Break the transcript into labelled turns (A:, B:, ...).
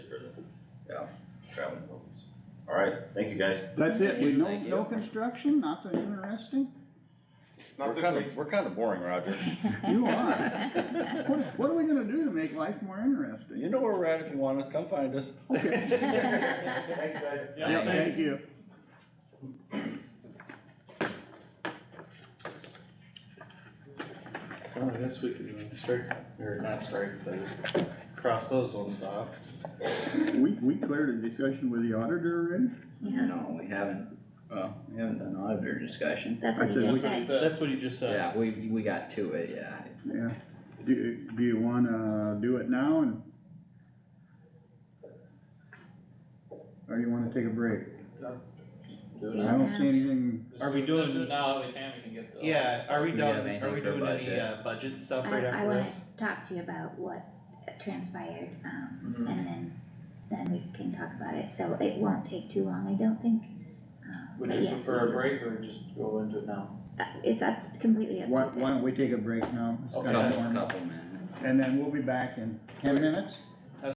A: thank you guys.
B: That's it, we, no,
C: Thank you.
B: no construction, nothing interesting?
D: Not
C: We're
D: this
C: kinda,
D: week.
C: we're kinda boring, Roger.
B: You are. What, what are we gonna do to make life more interesting?
C: You know where we're at if you want us, come find us.
B: Okay,
A: Thanks, guys.
B: yeah, thank you.
E: Well, I guess we can strike, or not strike, but cross those ones off.
B: We, we cleared a discussion with the auditor
F: Yeah,
G: No, we haven't, well, we haven't done auditor discussion.
F: that's
B: I
F: what
B: said
F: he
B: we-
F: just said.
E: That's what you just said.
G: Yeah, we, we got to it, yeah.
B: already? Yeah. Do, do you wanna do it now and? Or you wanna take a break? I don't see anything,
E: Are we
H: Let's do it
E: doing-
H: now, that way Tammy can get the.
E: Yeah, are we
G: Do we have
E: done, are
G: anything
E: we
G: for
E: doing any,
G: budget?
E: uh, budget stuff
F: I,
E: right
F: I
E: after
F: wanna
E: this?
F: talk to you about what transpired, um, and then, then we can talk about it, so it won't take too long, I don't think. Uh,
H: Would
F: but
H: you
F: yes,
H: prefer a
F: we-
H: break or just go into it now?
F: uh, It's up, to- completely up to you
B: why, why don't
F: guys.
B: we take a break now? It's
H: Okay.
B: kinda
G: Couple,
B: warm up.
G: couple minutes.
B: And then we'll be back in ten minutes?